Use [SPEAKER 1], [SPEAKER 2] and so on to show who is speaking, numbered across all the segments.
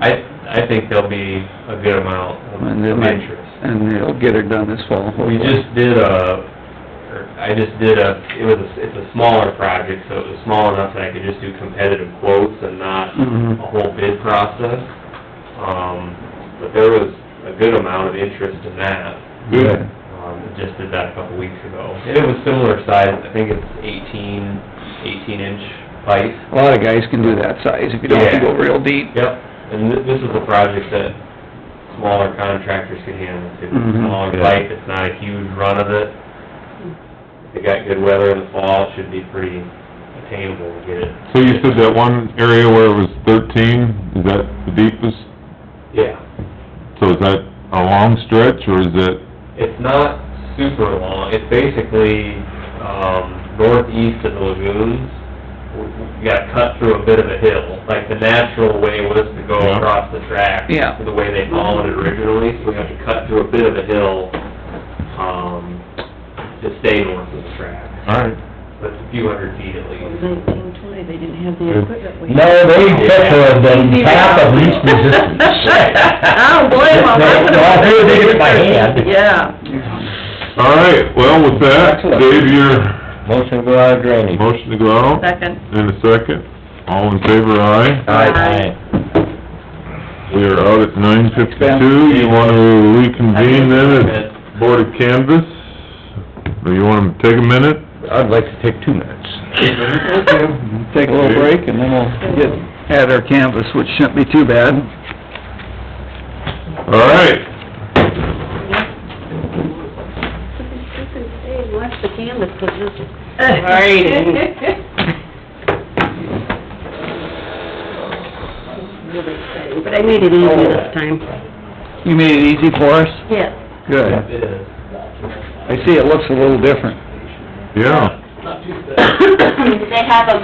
[SPEAKER 1] I, I think there'll be a good amount of
[SPEAKER 2] And they
[SPEAKER 1] of
[SPEAKER 2] might-
[SPEAKER 1] interest.
[SPEAKER 2] and they'll get it done this fall.
[SPEAKER 1] We just did a, or I just did a, it was, a- it's a smaller project, so it was small enough that I could just do competitive quotes and not
[SPEAKER 2] Mhm.
[SPEAKER 1] a whole bid process. Um, but there was a good amount of interest in that.
[SPEAKER 2] Good.
[SPEAKER 1] Um, we just did that a couple weeks ago. And it was similar size, I think it's eighteen, eighteen inch pipe.
[SPEAKER 2] A lot of guys can do that size if you don't have to go real deep.
[SPEAKER 1] Yep, and thi- this is a project that smaller contractors can handle too.
[SPEAKER 3] Mm-hmm.
[SPEAKER 2] Mhm.
[SPEAKER 1] Smaller pipe, it's not a huge run of it. If they got good weather in the fall, it should be pretty attainable to get it.
[SPEAKER 3] So you said that one area where it was thirteen, is that the deepest?
[SPEAKER 1] Yeah,
[SPEAKER 3] So is that a long stretch, or is it,
[SPEAKER 1] it's not super long, it's basically, um, northeast of the lagoons. W- w- You gotta cut through a bit of a hill, like the natural way was to go
[SPEAKER 3] Yeah.
[SPEAKER 1] across the track.
[SPEAKER 2] Yeah.
[SPEAKER 1] The way they followed it originally, so we have to cut through a bit of a hill, um, to stay north of the track.
[SPEAKER 3] all right?
[SPEAKER 1] That's a few hundred feet at least.
[SPEAKER 4] Nineteen twenty, they didn't have the equipment we
[SPEAKER 5] No,
[SPEAKER 4] have.
[SPEAKER 5] they took the, the path of least resistance.
[SPEAKER 4] I don't blame them, I
[SPEAKER 5] No,
[SPEAKER 4] would've...
[SPEAKER 5] I figured they did it by hand.
[SPEAKER 4] Yeah.
[SPEAKER 3] All right, well, with that,
[SPEAKER 5] Excellent.
[SPEAKER 3] Dave, your
[SPEAKER 5] Motion to go out of drainage.
[SPEAKER 3] motion to go out,
[SPEAKER 4] Second.
[SPEAKER 3] and a second, all in favor, aye.
[SPEAKER 4] Aye.
[SPEAKER 3] We are out at nine fifty-two, you wanna reconvene then at Board of Canvas? Or you wanna take a minute?
[SPEAKER 5] I'd like to take two minutes.
[SPEAKER 2] Okay, Take a little break and then we'll get, at our canvas, which shouldn't be too bad.
[SPEAKER 3] All right,
[SPEAKER 4] Hey, watch the canvas, but just... But I made it easy this time.
[SPEAKER 2] You made it easy for us?
[SPEAKER 4] Yes.
[SPEAKER 2] Good.
[SPEAKER 1] It is.
[SPEAKER 2] I see it looks a little different.
[SPEAKER 3] yeah,
[SPEAKER 6] They have a,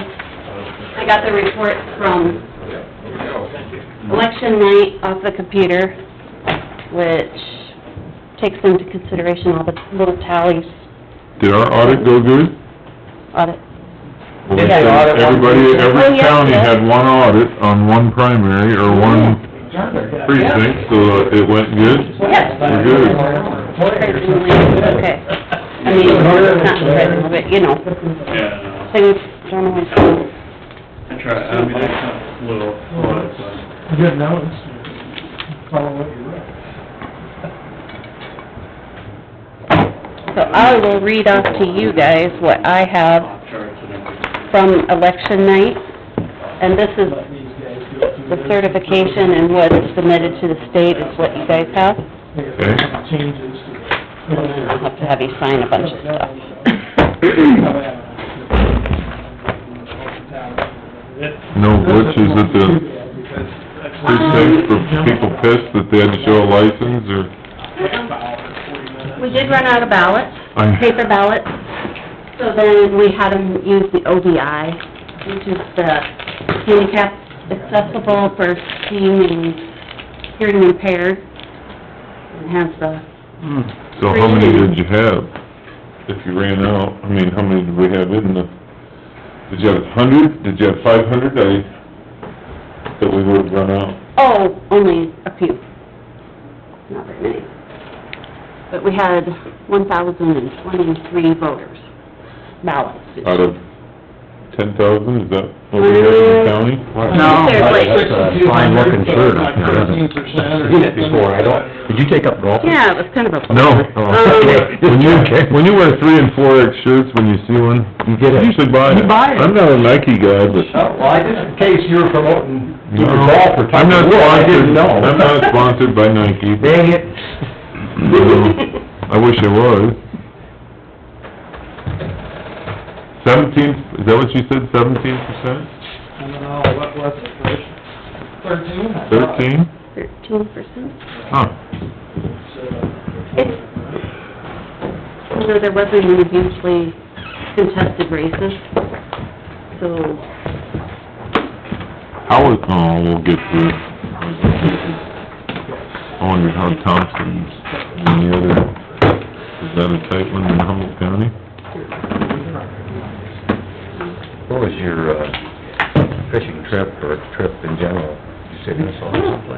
[SPEAKER 6] I got the report from election night off the computer, which takes into consideration all the little tallies
[SPEAKER 3] did our audit go good?
[SPEAKER 6] on it.
[SPEAKER 3] Well, they
[SPEAKER 6] Yeah.
[SPEAKER 3] said Everybody,
[SPEAKER 6] Oh,
[SPEAKER 3] every
[SPEAKER 6] yeah,
[SPEAKER 3] county
[SPEAKER 6] yeah.
[SPEAKER 3] had one audit on one primary or one precinct, so it went good.
[SPEAKER 6] Yes.
[SPEAKER 3] We're good.
[SPEAKER 6] Surprisingly, okay. I mean, it's not surprising, but, you know,
[SPEAKER 7] Yeah,
[SPEAKER 6] things don't always go
[SPEAKER 7] I know. I try, I mean, I cut little, but, uh,
[SPEAKER 8] Good notice, uh, follow what you read.
[SPEAKER 6] So I will read off to you guys what I have
[SPEAKER 7] off charts and everything.
[SPEAKER 6] from election night, and this is
[SPEAKER 8] Let these guys go through
[SPEAKER 6] the
[SPEAKER 8] this.
[SPEAKER 6] certification and what is submitted to the state is what you guys have.
[SPEAKER 8] Make a
[SPEAKER 3] Okay.
[SPEAKER 8] couple Changes to the...
[SPEAKER 6] I'll have to have you sign a bunch of stuff.
[SPEAKER 3] No glitches at the precinct for people pissed that they had to show a license or,
[SPEAKER 6] We did run out of ballots,
[SPEAKER 3] I-
[SPEAKER 6] paper ballots, so then we had them use the ODI, which is the handicap accessible for seeing and hearing impaired, and has the
[SPEAKER 3] so how many did you have? If you ran out, I mean, how many did we have in the, did you have a hundred, did you have five hundred, I, that we would've run out?
[SPEAKER 6] Oh, only a few. Not very many. But we had one thousand and twenty-three voters, ballots.
[SPEAKER 3] Out of ten thousand, is that what we had in the county?
[SPEAKER 6] No.
[SPEAKER 5] That's a fine looking shirt, I think, isn't it?
[SPEAKER 8] 13% or
[SPEAKER 5] Seen it before, I don't, did you take up golf?
[SPEAKER 6] Yeah, it was kind of a...
[SPEAKER 3] No.
[SPEAKER 6] Um,
[SPEAKER 3] When you, when you wear three and four X shirts, when you see one,
[SPEAKER 5] You get
[SPEAKER 3] you
[SPEAKER 5] it.
[SPEAKER 3] should buy it.
[SPEAKER 5] You buy it.
[SPEAKER 3] I'm not a Nike guy, but...
[SPEAKER 5] Oh, well, I just, in case you were promoting either
[SPEAKER 3] No.
[SPEAKER 5] golf or...
[SPEAKER 3] I'm not
[SPEAKER 5] Well, I didn't
[SPEAKER 3] sponsored,
[SPEAKER 5] know.
[SPEAKER 3] I'm not sponsored by Nike.
[SPEAKER 5] Dang it.
[SPEAKER 3] I wish I was. Seventeen, is that what you said, seventeen percent?
[SPEAKER 8] I don't know, what was it, Rich? Thirteen? I thought.
[SPEAKER 3] Thirteen?
[SPEAKER 6] Thirteen percent.
[SPEAKER 3] Huh.
[SPEAKER 6] It's, you know, there wasn't any hugely contested races, so...
[SPEAKER 3] How is, oh, we'll get through. it. I wonder how Thompson's and the other, is that a tight one in Humboldt County?
[SPEAKER 5] What was your, uh, fishing trip or trip in general?
[SPEAKER 1] city, that's all.